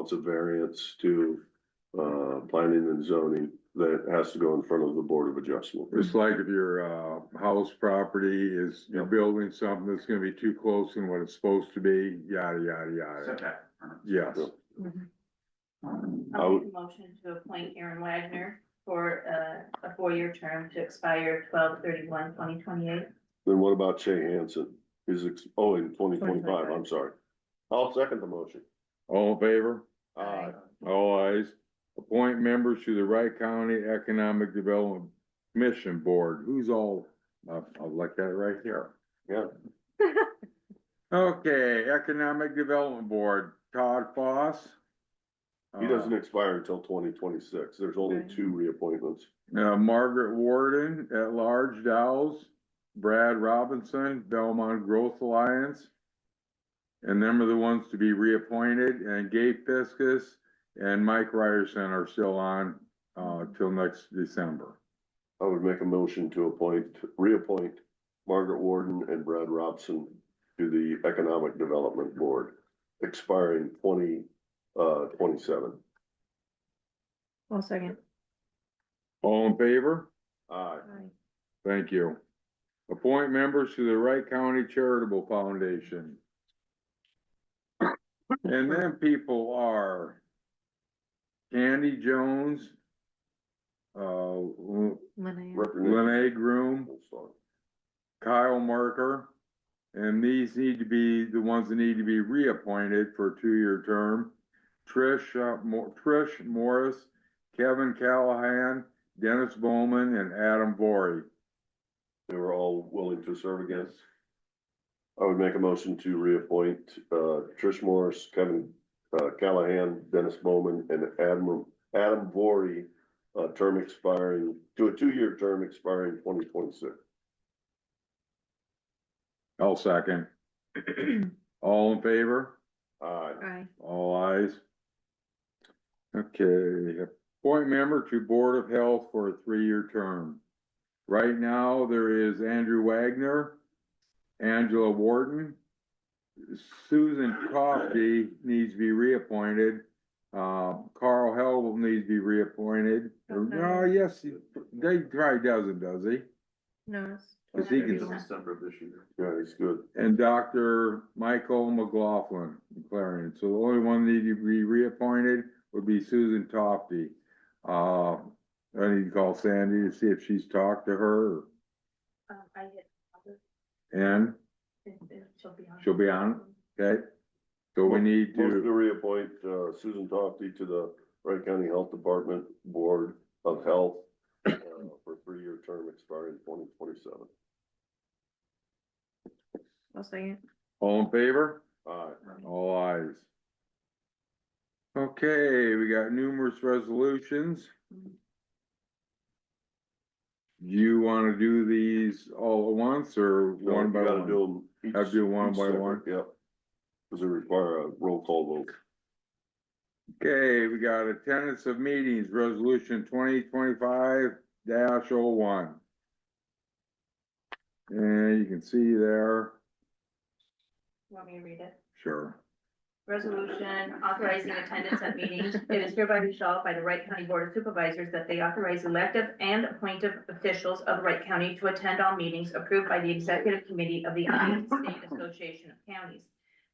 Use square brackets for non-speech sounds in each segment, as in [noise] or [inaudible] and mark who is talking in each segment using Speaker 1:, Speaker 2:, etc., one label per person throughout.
Speaker 1: it's a variance to uh planning and zoning that has to go in front of the Board of Adjustment.
Speaker 2: It's like if your, uh, house property is, you're building something that's gonna be too close than what it's supposed to be, yada, yada, yada.
Speaker 3: setback.
Speaker 2: Yes,
Speaker 1: I
Speaker 4: I'll
Speaker 1: would-
Speaker 4: make a motion to appoint Aaron Wagner for uh, a four-year term to expire 12-31-2028.
Speaker 1: Then what about Che Hanson? He's, ex- oh, in twenty twenty-five, I'm sorry. I'll second the motion. Uh,
Speaker 2: all in favor,
Speaker 1: Aye.
Speaker 2: all eyes. Appoint members to the Wright County Economic Development Commission Board, who's all, I, I like that right here.
Speaker 1: Yeah.
Speaker 2: [laughs] Okay, Economic Development Board, Todd Foss.
Speaker 1: He doesn't
Speaker 2: Uh,
Speaker 1: expire until twenty twenty-six. There's only two reappointments.
Speaker 2: Uh, Margaret Warden, at large Dowles, Brad Robinson, Belmont Growth Alliance. And them are the ones to be reappointed and Gabe Fiskus and Mike Ryerson are still on, uh, till next December.
Speaker 1: I would make a motion to appoint, reappoint Margaret Warden and Brad Robson to the Economic Development Board, expiring twenty, uh, twenty-seven.
Speaker 4: One second.
Speaker 2: All in favor?
Speaker 1: Aye.
Speaker 2: Thank you. Appoint members to the Wright County Charitable Foundation. And then people are Candy Jones, uh,
Speaker 1: Representative-
Speaker 2: Lene Groom, Kyle Marker. And these need to be, the ones that need to be reappointed for a two-year term. Trish, uh, Mo- Trish Morris, Kevin Callahan, Dennis Bowman, and Adam Vory.
Speaker 1: They were all willing to serve again. I would make a motion to reappoint, uh, Trish Morris, Kevin, uh, Callahan, Dennis Bowman, and Adam, Adam Vory, uh, term expiring, to a two-year term expiring twenty twenty-six.
Speaker 2: I'll second. All in favor?
Speaker 1: Aye.
Speaker 4: [clears throat] Aye.
Speaker 2: All ayes. Okay, appoint member to Board of Health for a three-year term. Right now, there is Andrew Wagner, Angela Wharton. Susan Coffey needs to be reappointed. Uh, Carl Hell needs to be reappointed. Or, No,
Speaker 4: Okay.
Speaker 2: yes, he- they, probably doesn't, does he?
Speaker 4: No.
Speaker 2: Cause he
Speaker 4: Whatever you
Speaker 2: can
Speaker 4: want.
Speaker 3: December of this year.
Speaker 1: Yeah, he's good.
Speaker 2: and Dr. Michael McLaughlin, Clarion. So the only one that needed to be reappointed would be Susan Tofty. Uh, I need to call Sandy to see if she's talked to her
Speaker 4: Um, I hit, other,
Speaker 2: and,
Speaker 4: and- and she'll be on.
Speaker 2: She'll be on. okay? So we need
Speaker 1: Motion to
Speaker 2: to,
Speaker 1: reappoint uh, Susan Tofty to the Wright County Health Department Board of Health uh, for a three-year term expiring twenty twenty-seven.
Speaker 4: I'll second.
Speaker 2: all in favor?
Speaker 1: Aye.
Speaker 2: All eyes. Okay, we got numerous resolutions. Do you wanna do these all at once or
Speaker 1: So
Speaker 2: one by
Speaker 1: you gotta
Speaker 2: one?
Speaker 1: do 'em each-
Speaker 2: Have to do one
Speaker 1: each
Speaker 2: by
Speaker 1: separate,
Speaker 2: one.
Speaker 1: Yep. Does it require a roll call vote?
Speaker 2: Okay, we got attendance of meetings, resolution twenty twenty-five dash oh one. And you can see there,
Speaker 4: Want me to read it?
Speaker 2: sure.
Speaker 4: Resolution authorizing attendance at meetings. It is hereby resolved by the Wright County Board of Supervisors that they authorize elective and appointive officials of Wright County to attend all meetings approved by the Executive Committee of the Iowa State Association of Counties.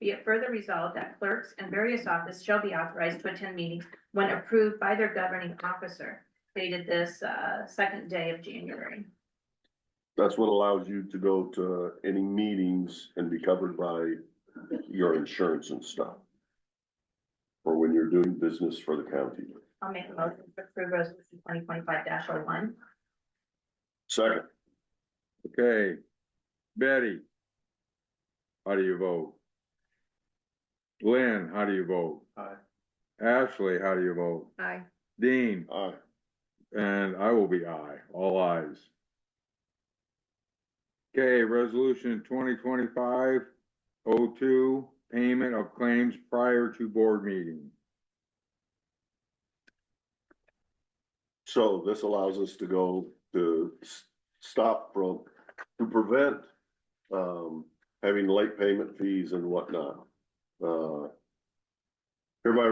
Speaker 4: Be it further resolved that clerks and various office shall be authorized to attend meetings when approved by their governing officer. Dated this, uh, second day of January.
Speaker 1: That's what allows you to go to any meetings and be covered by your insurance and stuff. Or when you're doing business for the county.
Speaker 4: I'll make a motion to approve resolution twenty twenty-five dash oh one.
Speaker 1: Second,
Speaker 2: Okay, Betty. How do you vote? Lynn, how do you vote?
Speaker 3: Aye.
Speaker 2: Ashley, how do you vote?
Speaker 4: Aye.
Speaker 2: Dean,
Speaker 1: aye.
Speaker 2: and I will be aye, all ayes. Okay, resolution twenty twenty-five oh two, payment of claims prior to board meeting.
Speaker 1: So this allows us to go to s- stop from, to prevent um having late payment fees and whatnot. Uh. Hereby